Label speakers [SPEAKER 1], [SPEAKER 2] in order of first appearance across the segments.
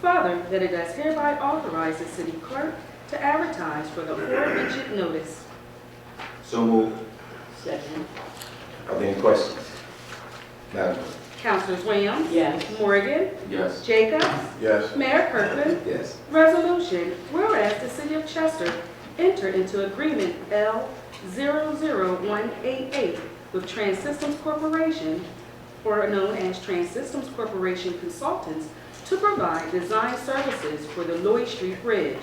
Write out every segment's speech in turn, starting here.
[SPEAKER 1] Further, that it does hereby authorize the city clerk to advertise for the aforementioned notice.
[SPEAKER 2] So moved.
[SPEAKER 3] Second.
[SPEAKER 2] Are there any questions? Madam Clerk?
[SPEAKER 1] Councilors Williams?
[SPEAKER 3] Yes.
[SPEAKER 1] Morgan?
[SPEAKER 2] Yes.
[SPEAKER 1] Jacobs?
[SPEAKER 2] Yes.
[SPEAKER 1] Mayor Kirkland?
[SPEAKER 2] Yes.
[SPEAKER 1] Resolution, whereas the City of Chester entered into agreement L 00188 with Trans-Systems Corporation, or known as Trans-Systems Corporation Consultants, to provide design services for the Lloyd Street Bridge.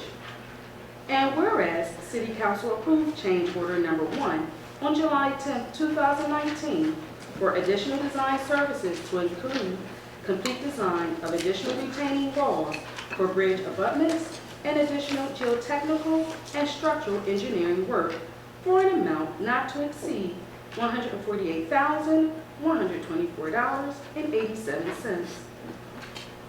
[SPEAKER 1] And whereas City Council approved change order number one on July 10, 2019, for additional design services to include complete design of additional retaining walls for bridge abutments and additional geotechnical and structural engineering work for an amount not to exceed $148,124.87.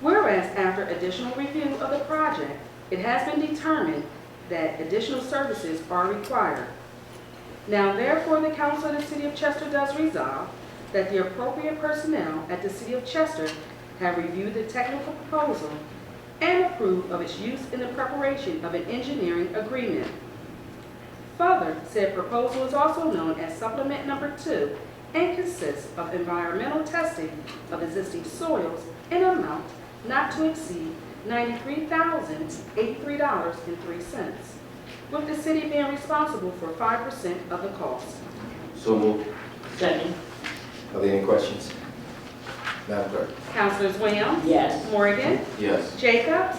[SPEAKER 1] Whereas after additional review of the project, it has been determined that additional services are required. Now therefore, the council of the city of Chester does resolve that the appropriate personnel at the city of Chester have reviewed the technical proposal and approve of its use in the preparation of an engineering agreement. Further, said proposal is also known as supplement number two and consists of environmental testing of existing soils in amount not to exceed ninety-three thousand eighty-three dollars and three cents, with the city being responsible for five percent of the cost.
[SPEAKER 2] So moved.
[SPEAKER 3] Second.
[SPEAKER 2] Are there any questions? Madam Clerk?
[SPEAKER 1] Councilors Williams?
[SPEAKER 3] Yes.
[SPEAKER 1] Morgan?
[SPEAKER 2] Yes.
[SPEAKER 1] Jacobs?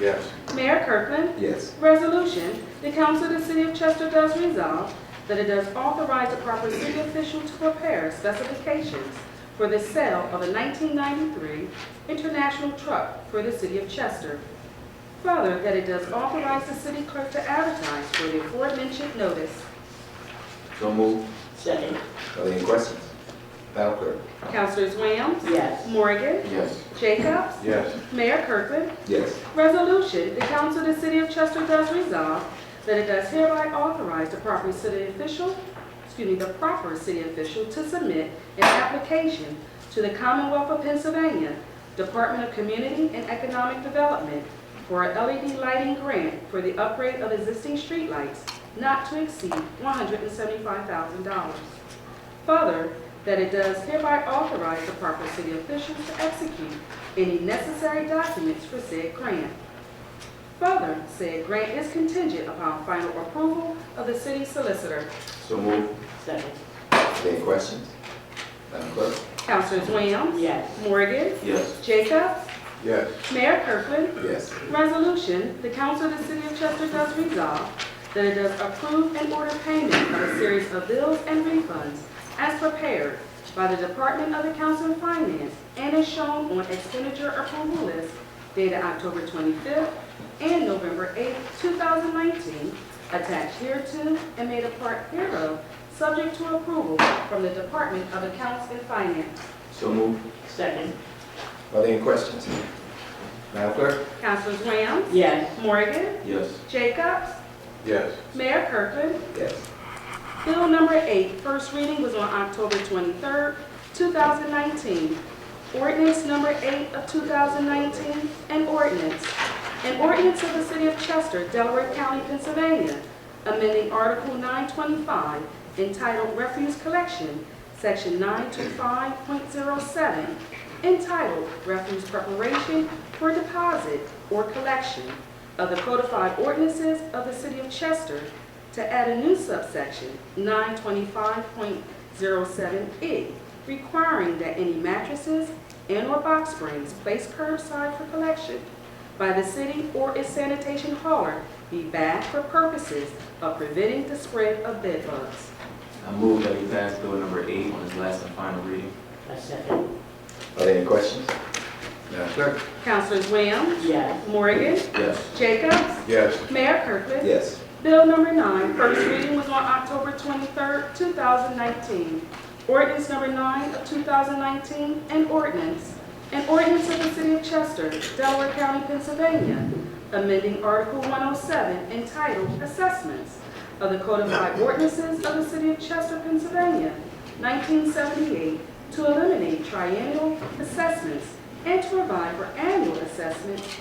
[SPEAKER 2] Yes.
[SPEAKER 1] Mayor Kirkland?
[SPEAKER 2] Yes.
[SPEAKER 1] Resolution, the council of the city of Chester does resolve that it does authorize the proper city official to prepare specifications for the sale of a 1993 international truck for the city of Chester. Further, that it does authorize the city clerk to advertise for the aforementioned notice.
[SPEAKER 2] So moved.
[SPEAKER 3] Second.
[SPEAKER 2] Are there any questions? Madam Clerk?
[SPEAKER 1] Councilors Williams?
[SPEAKER 3] Yes.
[SPEAKER 1] Morgan?
[SPEAKER 2] Yes.
[SPEAKER 1] Jacobs?
[SPEAKER 2] Yes.
[SPEAKER 1] Mayor Kirkland?
[SPEAKER 2] Yes.
[SPEAKER 1] Resolution, the council of the city of Chester does resolve that it does hereby authorize the proper city official, excuse me, the proper city official to submit an application to the Commonwealth of Pennsylvania Department of Community and Economic Development for a LED lighting grant for the upgrade of existing streetlights not to exceed $175,000. Further, that it does hereby authorize the proper city officials to execute any necessary documents for said grant. Further, said grant is contingent upon final approval of the city solicitor.
[SPEAKER 2] So moved.
[SPEAKER 3] Second.
[SPEAKER 2] Are there any questions? Madam Clerk?
[SPEAKER 1] Councilors Williams?
[SPEAKER 3] Yes.
[SPEAKER 1] Morgan?
[SPEAKER 2] Yes.
[SPEAKER 1] Jacobs?
[SPEAKER 2] Yes.
[SPEAKER 1] Mayor Kirkland?
[SPEAKER 2] Yes.
[SPEAKER 1] Resolution, the council of the city of Chester does resolve that it does approve and order payment of a series of bills and refunds as prepared by the Department of the Council of Finance and is shown on expenditure approval list dated October 25th and November 8th, 2019, attached hereto and made a part hereof, subject to approval from the Department of Accounts and Finance.
[SPEAKER 2] So moved.
[SPEAKER 3] Second.
[SPEAKER 2] Are there any questions? Madam Clerk?
[SPEAKER 1] Councilors Williams?
[SPEAKER 3] Yes.
[SPEAKER 1] Morgan?
[SPEAKER 2] Yes.
[SPEAKER 1] Jacobs?
[SPEAKER 2] Yes.
[SPEAKER 1] Mayor Kirkland?
[SPEAKER 2] Yes.
[SPEAKER 1] Bill number eight, first reading was on October 23rd, 2019. Ordinance number eight of 2019, an ordinance. An ordinance of the City of Chester, Delaware County, Pennsylvania, amending Article 925 entitled Refuse Collection, Section 925.07, entitled Refuse Preparation for Deposit or Collection of the Codified Ordinances of the City of Chester, to add a new subsection, 925.07E, E, requiring that any mattresses and/or box springs placed curbside for collection by the city or its sanitation hauler be bagged for purposes of preventing the spread of bedbugs.
[SPEAKER 4] I move that we pass bill number eight on its last and final reading.
[SPEAKER 3] I second.
[SPEAKER 2] Are there any questions? Madam Clerk?
[SPEAKER 1] Councilors Williams,
[SPEAKER 3] Yes.
[SPEAKER 1] Morgan,
[SPEAKER 4] Yes.
[SPEAKER 1] Jacobs,
[SPEAKER 2] Yes.
[SPEAKER 1] Mayor Kirkland.
[SPEAKER 2] Yes.
[SPEAKER 1] Bill number nine, first reading was on October 23rd, 2019. Ordinance number nine of 2019, an ordinance. An ordinance of the City of Chester, Delaware County, Pennsylvania, amending Article 107 entitled Assessments of the Codified Ordinances of the City of Chester, Pennsylvania, 1978, to eliminate triennial assessments and to provide for annual assessments